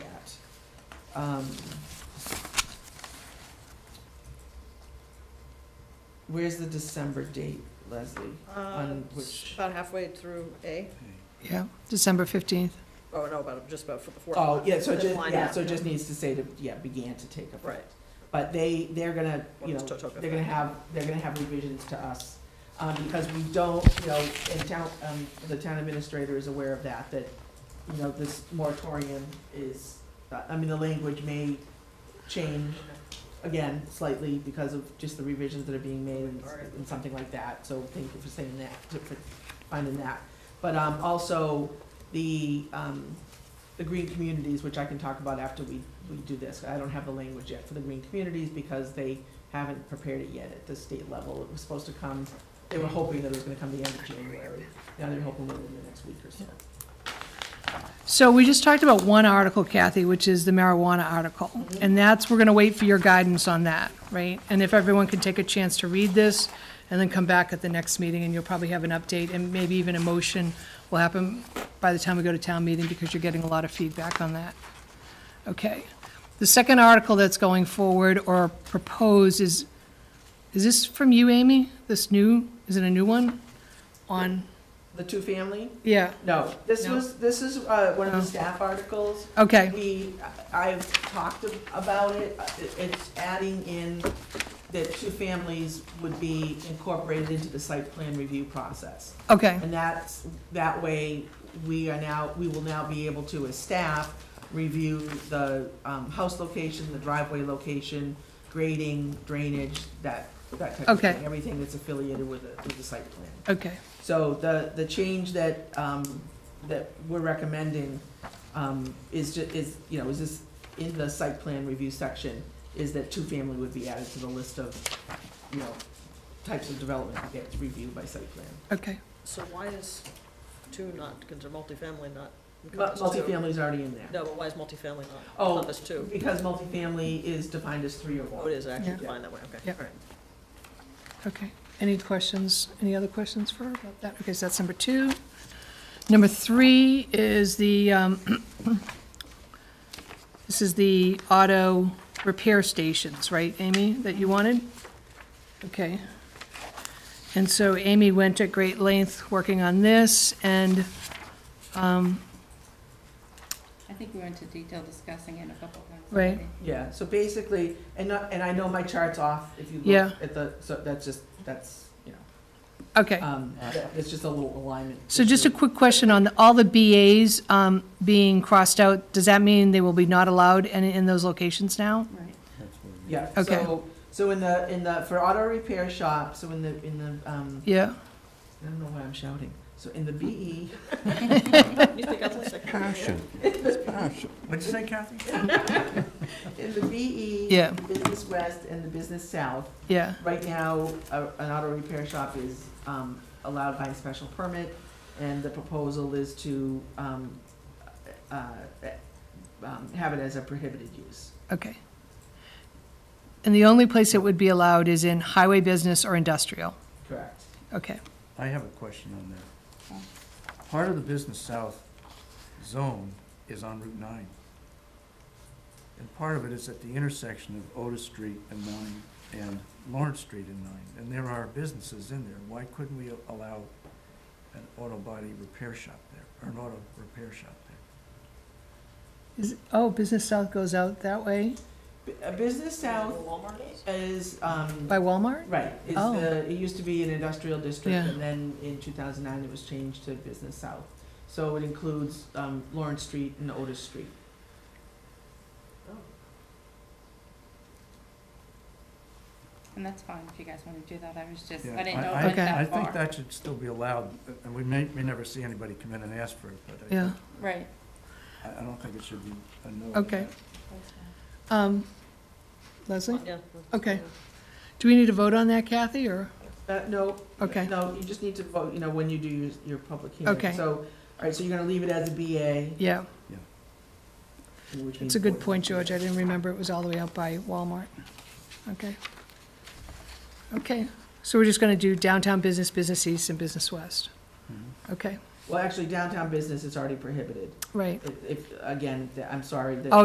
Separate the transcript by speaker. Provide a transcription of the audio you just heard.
Speaker 1: um, where's the December date, Leslie? On which-
Speaker 2: Uh, About halfway through A,
Speaker 3: Yeah, December 15th.
Speaker 2: oh, no, about, just about for the fourth.
Speaker 1: Oh,
Speaker 2: one.
Speaker 1: yeah, so
Speaker 2: Fifth
Speaker 1: just,
Speaker 2: line
Speaker 1: yeah,
Speaker 2: up.
Speaker 1: so it just needs to say to, yeah, began to take effect.
Speaker 2: Right.
Speaker 1: But they, they're gonna,
Speaker 2: When
Speaker 1: you
Speaker 2: it's
Speaker 1: know,
Speaker 2: to took
Speaker 1: they're gonna
Speaker 2: effect.
Speaker 1: have, they're gonna have revisions to us, um, because we don't, you know, and town, um, the town administrator is aware of that, that, you know, this moratorium is, I mean, the language may change again slightly because of just the revisions that are being made and, and something like that, so thank you for saying that, for finding that. But, um, also, the, um, the green communities, which I can talk about after we, we do this, I don't have the language yet for the green communities because they haven't prepared it yet at the state level. It was supposed to come, they were hoping that it was gonna come the end of January. Now they're hoping within the next week or so.
Speaker 3: So we just talked about one article, Kathy, which is the marijuana article. And that's, we're going to wait for your guidance on that, right? And if everyone could take a chance to read this and then come back at the next meeting and you'll probably have an update and maybe even a motion will happen by the time we go to town meeting because you're getting a lot of feedback on that. Okay. The second article that's going forward or proposed is, is this from you, Amy? This new, is it a new one? On,
Speaker 1: The two-family?
Speaker 3: yeah,
Speaker 1: No, this
Speaker 3: No.
Speaker 1: was, this is, uh, one of the
Speaker 3: No.
Speaker 1: staff articles.
Speaker 3: okay.
Speaker 1: We, I've talked ab- about it, Uh, it- it's adding in that two families would be incorporated into the site plan review process.
Speaker 3: Okay,
Speaker 1: And that's, that way, we are now, we will now be able to, as staff, review the um, house location, the driveway location, grading, drainage, that, that type of
Speaker 3: Okay.
Speaker 1: thing. Everything that's affiliated with the, with the site plan.
Speaker 3: okay,
Speaker 1: So the, the change that, um, that we're recommending, um, is ju- is, you know, is this in the site plan review section, is that two-family would be added to the list of, you know, types of development that gets reviewed by site plan.
Speaker 3: okay.
Speaker 2: So why is two not, because multifamily not
Speaker 1: Mu-
Speaker 2: encompassed two?
Speaker 1: Multifamily's already in there.
Speaker 2: No, but why is multifamily not
Speaker 1: Oh.
Speaker 2: encompassed two?
Speaker 1: Because multifamily is defined as three or
Speaker 2: Oh, it
Speaker 1: more.
Speaker 2: is actually
Speaker 3: Yeah.
Speaker 2: defined that way, okay.
Speaker 3: Yeah.
Speaker 2: all right.
Speaker 3: Okay, any questions, any other questions for her about that? Okay, so that's number two. Number three is the, um, this is the auto repair stations, right, Amy, that you wanted? Okay. And so Amy went at great length working on this, and, um,
Speaker 4: I think we went into detail discussing it a couple times.
Speaker 3: Right.
Speaker 4: already.
Speaker 1: Yeah, so basically, and not, and I know my chart's off if you
Speaker 3: Yeah.
Speaker 1: look at the, so that's just, that's, you know,
Speaker 3: okay.
Speaker 1: um, that- it's just a little alignment.
Speaker 3: So just a
Speaker 1: issue.
Speaker 3: quick question on the- all the BAs um, being crossed out, does that mean they will be not allowed in, in those locations now?
Speaker 4: Right.
Speaker 1: Yeah,
Speaker 3: Okay.
Speaker 1: so, so in the, in the, for auto repair shop, so in the, in the, um,
Speaker 3: Yeah,
Speaker 1: I don't know why I'm shouting. So in the E, BE,
Speaker 2: You think I'm the second?
Speaker 5: What'd you say, Kathy?
Speaker 1: in the BE.
Speaker 3: Yeah.
Speaker 1: Business West and the Business South,
Speaker 3: yeah,
Speaker 1: right now, a, an auto repair shop is, um, allowed by special permit. And the proposal is to, um, uh, um, have it as a prohibited use.
Speaker 3: okay. And the only place it would be allowed is in highway business or industrial?
Speaker 1: Correct.
Speaker 3: Okay,
Speaker 5: I have a question on that. Part of the Business South zone is on Route 9. And part of it is at the intersection of Otis Street and 9 and Lawrence Street and 9. And there are businesses in there. Why couldn't we allow an auto body repair shop there, or an auto repair shop there?
Speaker 3: is, oh, Business South goes out that way
Speaker 1: B- uh, Business South is, um.
Speaker 3: by Walmart?
Speaker 1: Right, it's
Speaker 3: Oh.
Speaker 1: the, it used to be an industrial district,
Speaker 3: Yeah.
Speaker 1: and then in two thousand nine, it was changed to Business South. So it includes, um, Lawrence Street and Otis Street.
Speaker 4: And that's fine if you guys want to do that. I was just,
Speaker 5: Yeah,
Speaker 4: I didn't know it
Speaker 3: I-
Speaker 4: went
Speaker 3: Okay.
Speaker 5: I
Speaker 4: that
Speaker 5: think
Speaker 4: far.
Speaker 5: that should still be allowed, and we may, may never see anybody come in and ask for it, but I
Speaker 3: Yeah,
Speaker 5: think-
Speaker 4: Right.
Speaker 5: I, I don't think it should be a no. on
Speaker 3: Okay.
Speaker 5: that.
Speaker 4: that's fine.
Speaker 3: um, Leslie,
Speaker 2: Yeah.
Speaker 3: Okay. do we need to vote on that, Kathy, or,
Speaker 1: Uh, no,
Speaker 3: okay,
Speaker 1: no, you just need to vote, you know, when you do your, your public hearing.
Speaker 3: Okay.
Speaker 1: So, all right, so you're gonna leave it as a BA.
Speaker 3: yeah,
Speaker 1: which means
Speaker 3: it's a good
Speaker 1: affordable
Speaker 3: point, George,
Speaker 1: housing.
Speaker 3: I didn't remember it was all the way out by Walmart. Okay. Okay, so we're just gonna do downtown business, business east, and business west,
Speaker 5: Mhm.
Speaker 3: okay,
Speaker 1: Well, actually, downtown business is already prohibited.
Speaker 3: right.
Speaker 1: If, if, again, th- I'm sorry, that.
Speaker 3: Oh,